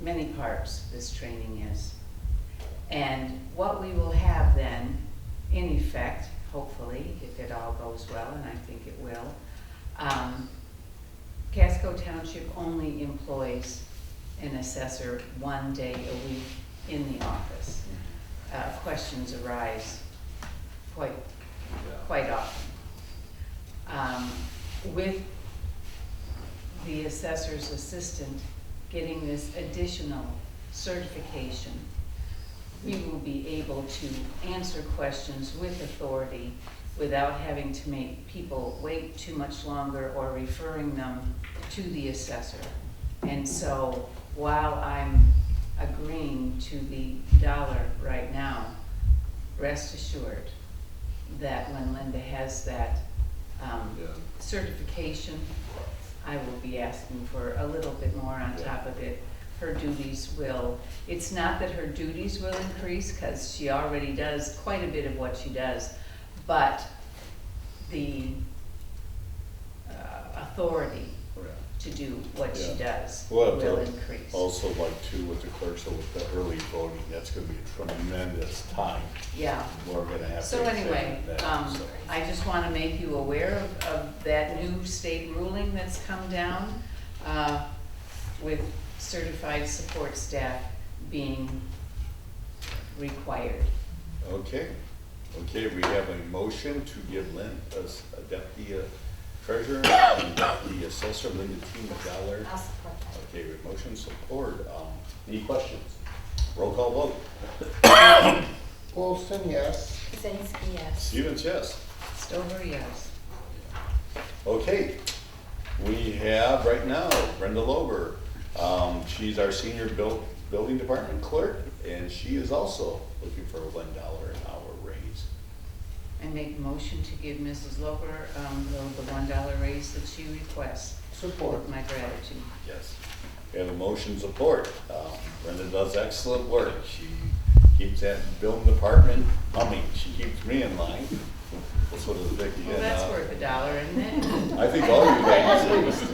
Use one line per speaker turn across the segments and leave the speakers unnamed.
many parts this training is. And what we will have then, in effect, hopefully, if it all goes well, and I think it will, um, Casco Township only employs an assessor one day a week in the office. Uh, Questions arise quite, quite often. Um, With the assessor's assistant getting this additional certification, we will be able to answer questions with authority without having to make people wait too much longer or referring them to the assessor. And so while I'm agreeing to the dollar right now, rest assured that when Linda has that um,
Yeah.
certification, I will be asking for a little bit more on top of it. Her duties will, it's not that her duties will increase, because she already does quite a bit of what she does, but the uh, authority to do what she
Yeah.
does
We'll have
will
to
increase.
Also like too with the clerks, so with the early voting, that's gonna be a tremendous time.
Yeah.
We're gonna have to.
So anyway,
extend that,
um,
so.
I just want to make you aware of, of that new state ruling that's come down, uh, with certified support staff being required.
Okay, okay, we have a motion to give Lynn, as a deputy uh, treasurer, and deputy assessor, Linda T. McGower.
I'll support that.
Okay, we have motion support, um, any questions? Roll call vote.
Wilson, yes.
Kaczynski, yes.
Stevens, yes.
Stover, yes.
Okay, we have right now Brenda Lober. Um, she's our senior buil- building department clerk, and she is also looking for a one dollar an hour raise.
I make motion to give Mrs. Loper, um, the- the one dollar raise that she requests.
Support.
With my gratitude.
Yes. We have a motion support. Um, Brenda does excellent work. She keeps that building department humming. She keeps me in line. That's what it's big.
Well, that's worth a dollar, isn't it?
uh, I think all of you guys,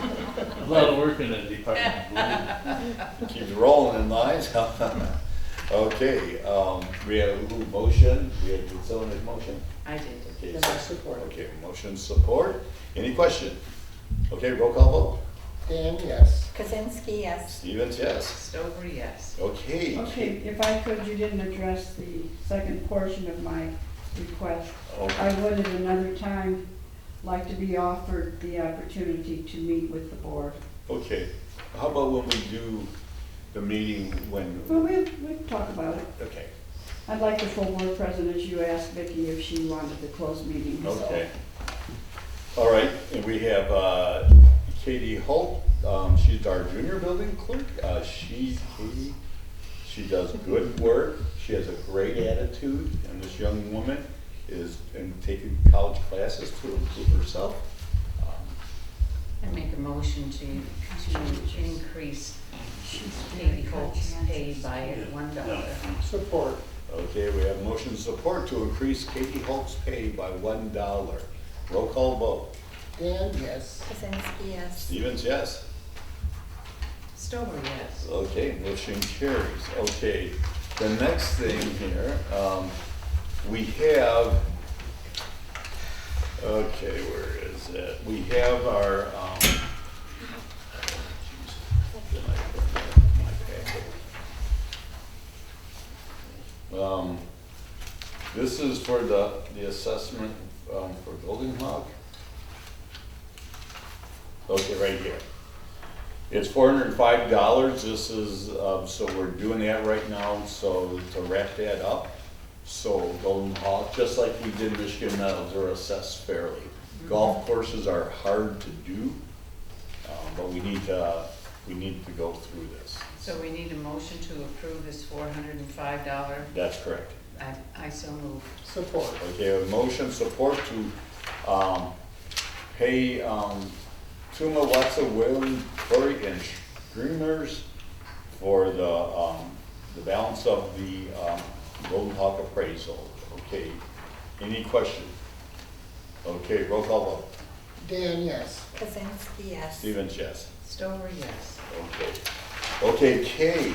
A lot of work in that department.
keeps rolling in lines. Okay, um, we have a little motion. We have, did someone make motion?
I did.
Okay,
Then
so-
I support.
Okay, motion support. Any question? Okay, roll call vote.
Dan, yes.
Kaczynski, yes.
Stevens, yes.
Stover, yes.
Okay.
Okay, if I could, you didn't address the second portion of my request.
Okay.
I would at another time like to be offered the opportunity to meet with the board.
Okay, how about when we do the meeting
Well,
when,
we'll, we'll talk about it.
okay,
I'd like the full board present, as you asked Vicki if she wanted the closed meeting, so.
okay. All right, and we have uh, Katie Holt, um, she's our junior building clerk. Uh, She, Katie, she does good work, she has a great attitude, and this young woman is in- taking college classes to improve herself. Um,
I make a motion to, to increase Katie Holt's pay by one dollar.
Support.
Okay, we have motion support to increase Katie Holt's pay by one dollar. Roll call vote.
Dan, yes.
Kaczynski, yes.
Stevens, yes?
Stover, yes.
Okay, motion carries. Okay, the next thing here, um, we have, okay, where is it? We have our, um, did I put that in my packet? Um, this is for the, the assessment, um, for building log. Okay, right here. It's four hundred and five dollars, this is, um, so we're doing that right now, so to wrap that up. So Golden Hawk, just like we did Michigan Metals, are assessed fairly. Golf courses are hard to do, um, but we need to, we need to go through this.
So we need a motion to approve this four hundred and five dollar,
That's correct.
I, I so move.
Support.
Okay, a motion support to, um, pay, um, Tuma Watson, Whalen, Curry, and Streamers for the, um, the balance of the, um, Golden Hawk appraisal. Okay, any question? Okay, roll call vote.
Dan, yes.
Kaczynski, yes.
Stevens, yes.
Stover, yes.
Okay. Okay, Kay,